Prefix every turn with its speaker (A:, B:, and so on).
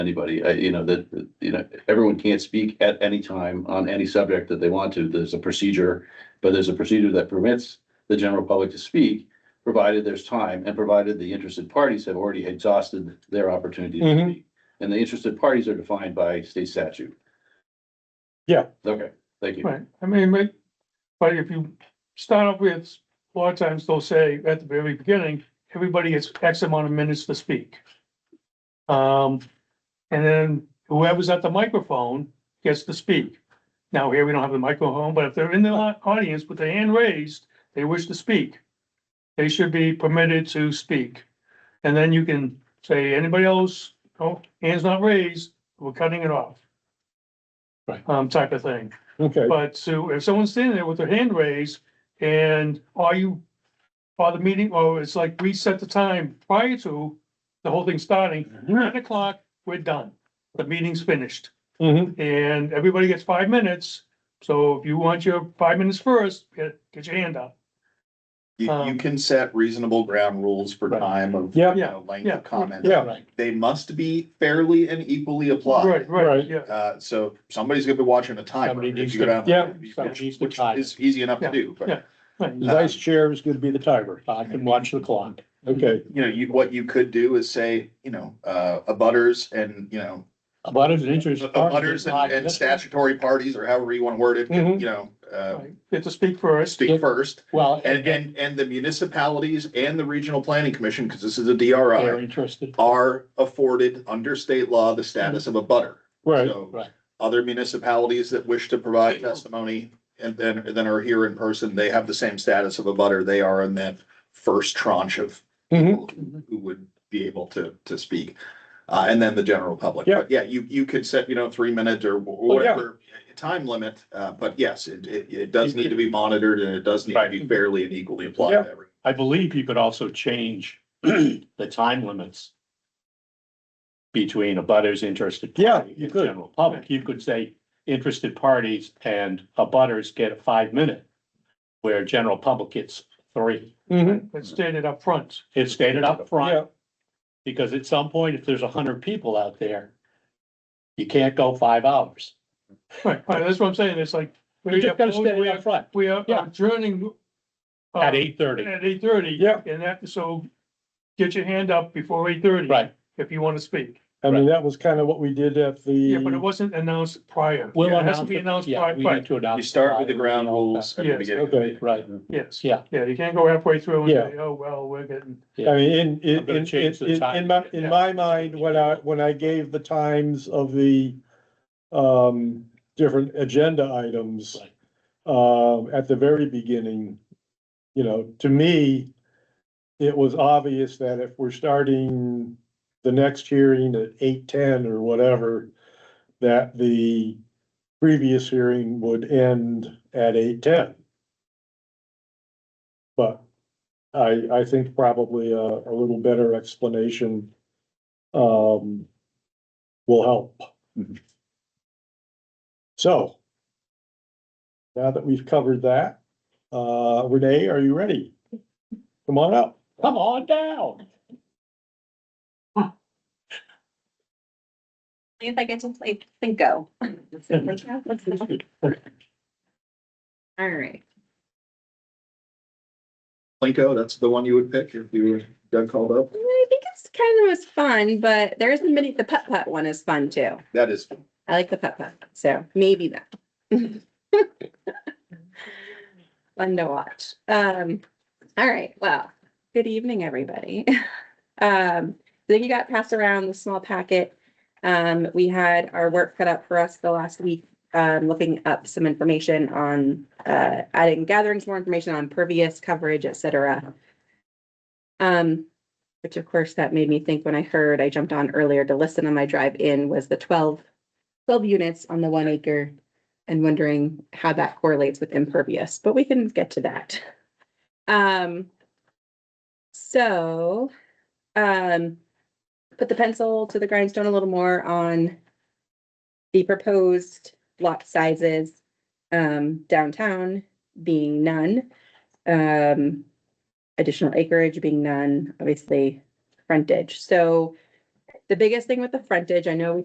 A: anybody, I, you know, that, that, you know, everyone can't speak at any time on any subject that they want to. There's a procedure, but there's a procedure that permits the general public to speak, provided there's time and provided the interested parties have already exhausted their opportunity to
B: Mhm.
A: speak. And the interested parties are defined by state statute.
B: Yeah.
A: Okay, thank you.
C: Right, I mean, but, but if you start off with, a lot of times they'll say at the very beginning, everybody gets X amount of minutes to speak. Um, and then whoever's at the microphone gets to speak. Now, here we don't have the microphone, but if they're in the au- audience with their hand raised, they wish to speak. They should be permitted to speak. And then you can say, anybody else, oh, hands not raised, we're cutting it off.
B: Right.
C: Um, type of thing.
B: Okay,
C: But so if someone's standing there with their hand raised and are you, are the meeting, or it's like we set the time prior to the whole thing starting, nine o'clock, we're done. The meeting's finished
B: Mhm.
C: and everybody gets five minutes. So if you want your five minutes first, get, get your hand up.
D: You, you
C: Um,
D: can set reasonable ground rules for
B: Right.
D: time of, you
B: Yep.
D: know, length
C: yeah,
D: of comment.
B: yeah,
D: They must be fairly and equally applied.
C: Right, right,
B: Right.
C: yeah.
D: Uh, so somebody's gonna be watching a timer.
B: Somebody
D: if
B: needs
D: you
B: to-
D: go down-
B: yeah,
D: which-
B: somebody needs to
D: which
B: time it.
D: Is easy enough
C: Yeah,
D: to do, but.
C: yeah.
B: The vice chair is gonna be the timer. I can watch the clock. Okay,
D: you know, you, what you could do is say, you know, uh, abutters and, you know,
B: about as an interest. Mm-hmm.
D: abutters and- and statutory parties or however you want to word it,
B: Mhm.
D: you know, uh,
C: Right. You have to speak first.
B: Yeah.
D: speak first.
B: Well,
D: And, and, and the municipalities and the regional planning commission, because this is a
B: they're
D: DRI,
B: interested.
D: are afforded under state law the status of a butter.
B: Right,
D: So-
B: right.
D: Other municipalities that wish to provide testimony and then, then are here in person, they have the same status of a butter. They are in that first tranche of
B: Mhm.
D: people who would be able to, to speak. Uh, and then the general public.
B: Yeah.
D: But Yeah, you, you could set, you know, three minute or wh-
B: Oh, yeah.
D: whatever time limit, uh, but yes, it, it, it does need to be monitored and it does need to be
B: Right.
D: fairly and equally applied.
B: Yeah.
D: to everyone.
B: I believe you could also change the time limits between abutters, interested.
C: Yeah,
B: party,
C: you
B: and
C: could.
B: General public, you could say interested parties and abutters get a five minute, where general public gets three. Mm-hmm.
C: It's stated up front.
B: It's stated up front, because at some point, if there's a hundred people out there, you can't go five hours.
C: Right, right, that's what I'm saying. It's like.
B: You
C: we
B: just gotta stand
C: we
B: it up front
C: We are
B: Yeah.
C: adjourning. uh,
B: at eight thirty,
C: At eight thirty.
B: Yeah.
C: And that, so get your hand up before eight thirty.
B: right?
C: If you want to speak.
E: I mean, that was kind of what we did at the.
C: Yeah, but it wasn't announced prior.
B: We'll
C: It has to
B: announce
C: be
B: it.
C: announced
B: Yeah,
C: prior,
B: we need
C: right,
B: to announce
D: You
B: it
D: start with the
B: prior.
D: ground rules at the
C: Yes.
D: beginning. of the
E: Okay.
D: meeting.
B: Right,
C: yes.
B: yeah.
C: Yeah, you can't go halfway through and
E: Yeah.
C: say, oh, well, we're getting,
E: I mean, in,
B: I'm
E: in,
B: gonna
E: in,
B: change the
E: in,
B: time.
E: in my, in my mind, when I, when I gave the times of the. Um, different agenda items.
B: Right.
E: Um, at the very beginning. You know, to me. It was obvious that if we're starting the next hearing at eight ten or whatever. That the previous hearing would end at eight ten. But I, I think probably a, a little better explanation, um, will help. So now that we've covered that, uh, Renee, are you ready? Come on up.
B: Come on down.
F: If I get to play Cinco. All right,
D: Plinko, that's the one you would pick if you were Doug called up.
F: I think it's kind of was fun, but there isn't many, the putt putt one is fun too.
D: That is,
F: I like the putt putt, so maybe that. Fun to watch. Um, all right, well, good evening, everybody. Um, I think you got passed around the small packet. Um, we had our work cut out for us the last week, um, looking up some information on, uh, adding, gathering some more information on pervious coverage, et cetera. Um, which of course that made me think when I heard, I jumped on earlier to listen on my drive in was the twelve 12 units on the one acre and wondering how that correlates with impervious, but we can get to that. Um, so, um, put the pencil to the grindstone a little more on the proposed lot sizes, um, downtown being none, um, additional acreage being none, obviously frontage. So The biggest thing with the frontage, I know we